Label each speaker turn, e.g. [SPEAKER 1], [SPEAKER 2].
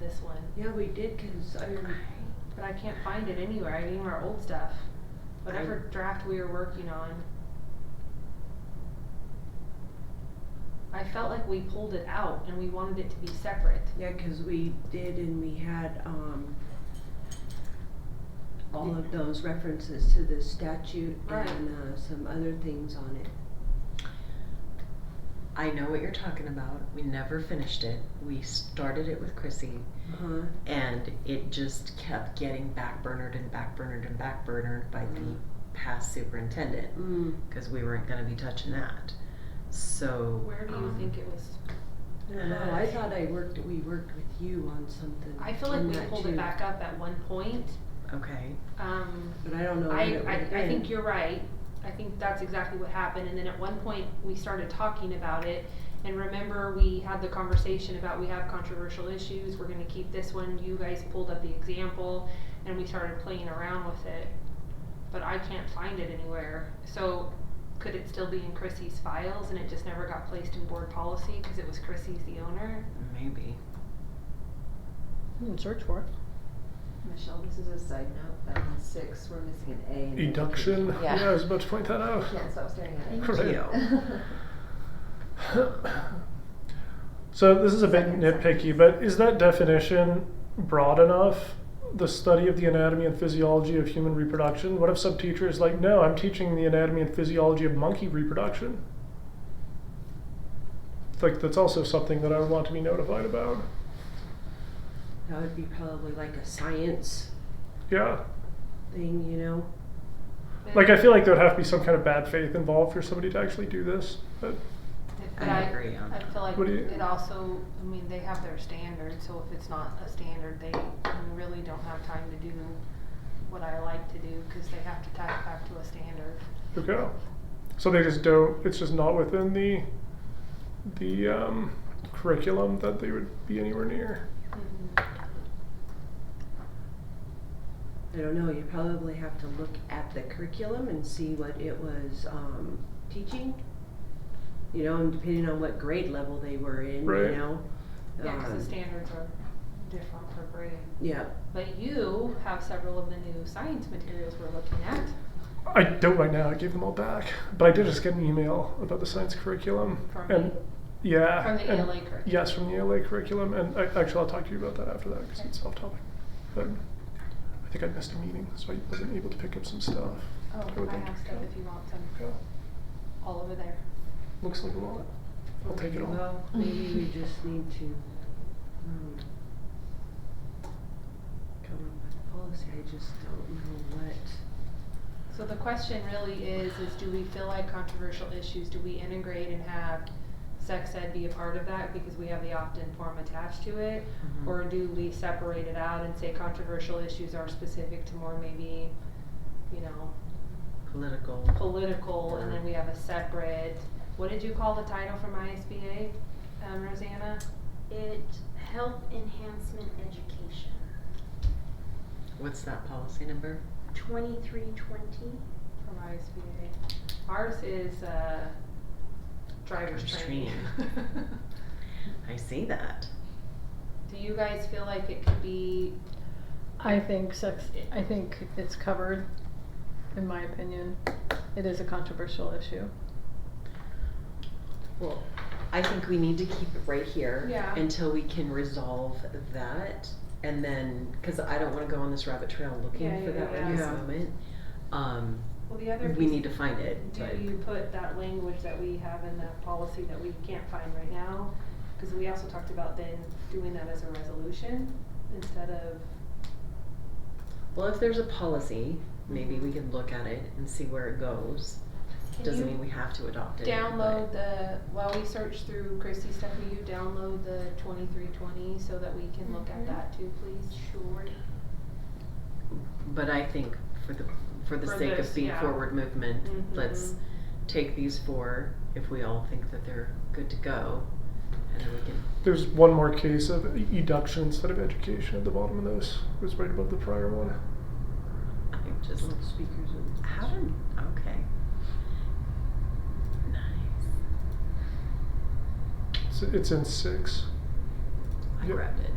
[SPEAKER 1] this one.
[SPEAKER 2] Yeah, we did, cause I,
[SPEAKER 1] But I can't find it anywhere, I need our old stuff, whatever draft we were working on. I felt like we pulled it out and we wanted it to be separate.
[SPEAKER 2] yeah, cause we did and we had, um, all of those references to the statute
[SPEAKER 1] Right.
[SPEAKER 2] and, uh, some other things on it.
[SPEAKER 3] I know what you're talking about. We never finished it. We started it with Chrissy,
[SPEAKER 2] Uh-huh,
[SPEAKER 3] and it just kept getting backburnered and backburnered and backburnered by the
[SPEAKER 1] Mm-hmm.
[SPEAKER 3] past superintendent
[SPEAKER 2] mm,
[SPEAKER 3] because we weren't going to be touching that. So
[SPEAKER 1] Where do you
[SPEAKER 3] um,
[SPEAKER 1] think it was?
[SPEAKER 2] I don't know, Oh, I thought I worked, we worked with you on something.
[SPEAKER 1] I feel like
[SPEAKER 2] on
[SPEAKER 1] we
[SPEAKER 2] that
[SPEAKER 1] pulled it
[SPEAKER 2] too,
[SPEAKER 1] back up at one point,
[SPEAKER 3] Okay.
[SPEAKER 1] um.
[SPEAKER 2] But I don't know what
[SPEAKER 1] I,
[SPEAKER 2] it
[SPEAKER 1] I,
[SPEAKER 2] would've
[SPEAKER 1] I
[SPEAKER 2] been.
[SPEAKER 1] think you're right. I think that's exactly what happened. And then at one point, we started talking about it. And remember, we had the conversation about we have controversial issues. We're going to keep this one. You guys pulled up the example, and we started playing around with it. But I can't find it anywhere. So could it still be in Chrissy's files and it just never got placed in board policy because it was Chrissy's the owner?
[SPEAKER 3] Maybe.
[SPEAKER 4] You can search for it.
[SPEAKER 5] Michelle, this is a side note, but on six, we're missing an A. in the
[SPEAKER 6] Induction.
[SPEAKER 5] education.
[SPEAKER 6] Yeah. I
[SPEAKER 5] Yeah,
[SPEAKER 6] was about to point that out.
[SPEAKER 5] yeah, so I was staring at it.
[SPEAKER 4] Thank
[SPEAKER 6] Right.
[SPEAKER 3] you.
[SPEAKER 6] So this is a bit
[SPEAKER 5] Second,
[SPEAKER 6] nitpicky,
[SPEAKER 5] second.
[SPEAKER 6] but is that definition broad enough? The study of the anatomy and physiology of human reproduction. What if some teacher is like, "No, I'm teaching the anatomy and physiology of monkey reproduction." It's Like that's also something that I would want to be notified about.
[SPEAKER 2] That would be probably like a science
[SPEAKER 6] Yeah,
[SPEAKER 2] thing, you know?
[SPEAKER 6] like I feel like there would have to be some kind of bad faith involved for somebody to actually do this. But
[SPEAKER 1] But
[SPEAKER 3] I agree on
[SPEAKER 1] I
[SPEAKER 3] that.
[SPEAKER 1] feel like
[SPEAKER 6] What do you-
[SPEAKER 1] it also, I mean, they have their standard, so if it's not a standard, they I mean, really don't have time to do what I like to do, cause they have to tie it back to a standard.
[SPEAKER 6] Okay. So they just don't. It's just not within the the um, curriculum that they would be anywhere near.
[SPEAKER 3] Mm-hmm.
[SPEAKER 2] I don't know, you probably have to look at the curriculum and see what it was, um, teaching. You know, and depending on what grade level they were in, you
[SPEAKER 6] Right.
[SPEAKER 2] know?
[SPEAKER 1] Yeah, cause
[SPEAKER 2] Um,
[SPEAKER 1] the standards are different per grade.
[SPEAKER 2] Yeah,
[SPEAKER 1] But you have several of the new science materials we're looking at.
[SPEAKER 6] I don't right now. I gave them all back, but I did just get an email about the science curriculum
[SPEAKER 1] From
[SPEAKER 6] and yeah,
[SPEAKER 1] from the
[SPEAKER 6] and-
[SPEAKER 1] ELA curriculum.
[SPEAKER 6] Yes, from the ELA curriculum, and I, actually I'll talk to you about that after that because it's off topic. But I think I missed a meeting, so I wasn't able to pick up some stuff.
[SPEAKER 1] Oh,
[SPEAKER 6] would
[SPEAKER 1] I
[SPEAKER 6] think-
[SPEAKER 1] have stuff if you want some,
[SPEAKER 6] Yeah.
[SPEAKER 1] all over there.
[SPEAKER 6] Looks like a lot. I'll take it all.
[SPEAKER 2] well, maybe we just need to, um, come up with a policy, I just don't know what.
[SPEAKER 1] So the question really is, is do we feel like controversial issues, do we integrate and have sex ed be a part of that because we have the opt-in form attached to it?
[SPEAKER 3] Mhm.
[SPEAKER 1] Or do we separate it out and say controversial issues are specific to more maybe, you know,
[SPEAKER 3] Political.
[SPEAKER 1] political, and then we have a separate, what did you call the title from ISBA, um, Rosanna?
[SPEAKER 7] It help enhancement education.
[SPEAKER 3] What's that policy number?
[SPEAKER 7] Twenty-three twenty.
[SPEAKER 1] From ISBA. Ours is, uh, driver's
[SPEAKER 3] Driver's
[SPEAKER 1] training.
[SPEAKER 3] training. I see that.
[SPEAKER 1] Do you guys feel like it could be
[SPEAKER 4] I think sex. I think it's covered. In my opinion, it is a controversial issue.
[SPEAKER 3] Well, I think we need to keep it right here
[SPEAKER 1] Yeah.
[SPEAKER 3] until we can resolve that, and then because I don't want to go on this rabbit trail looking
[SPEAKER 1] Yeah,
[SPEAKER 3] for
[SPEAKER 1] yeah,
[SPEAKER 3] that one at this
[SPEAKER 2] yeah.
[SPEAKER 3] moment. Um,
[SPEAKER 1] Well, the other
[SPEAKER 3] we
[SPEAKER 1] piece,
[SPEAKER 3] need to find it. but-
[SPEAKER 1] do you put that language that we have in that policy that we can't find right now? Cause we also talked about then doing that as a resolution instead of,
[SPEAKER 3] well, if there's a policy, maybe we can look at it and see where it goes.
[SPEAKER 1] can
[SPEAKER 3] Doesn't
[SPEAKER 1] you
[SPEAKER 3] mean we have to adopt it.
[SPEAKER 1] download the, while we search through Christie's stuff, will you download the twenty-three twenty so that we can look at
[SPEAKER 7] Mhm.
[SPEAKER 1] that too, please?
[SPEAKER 7] Sure.
[SPEAKER 3] but, but I think for the for the
[SPEAKER 1] For
[SPEAKER 3] sake
[SPEAKER 1] this,
[SPEAKER 3] of being
[SPEAKER 1] yeah.
[SPEAKER 3] forward movement,
[SPEAKER 1] Mhm.
[SPEAKER 3] let's take these four if we all think that they're good to go, and then we can
[SPEAKER 6] There's one more case of eduction instead of education at the bottom of this. It was right above the prior one.
[SPEAKER 3] I just
[SPEAKER 2] um, Speakers and.
[SPEAKER 3] How did okay. Nice.
[SPEAKER 6] It's, it's in Oh, six.
[SPEAKER 3] I
[SPEAKER 6] Yep.
[SPEAKER 3] grabbed it.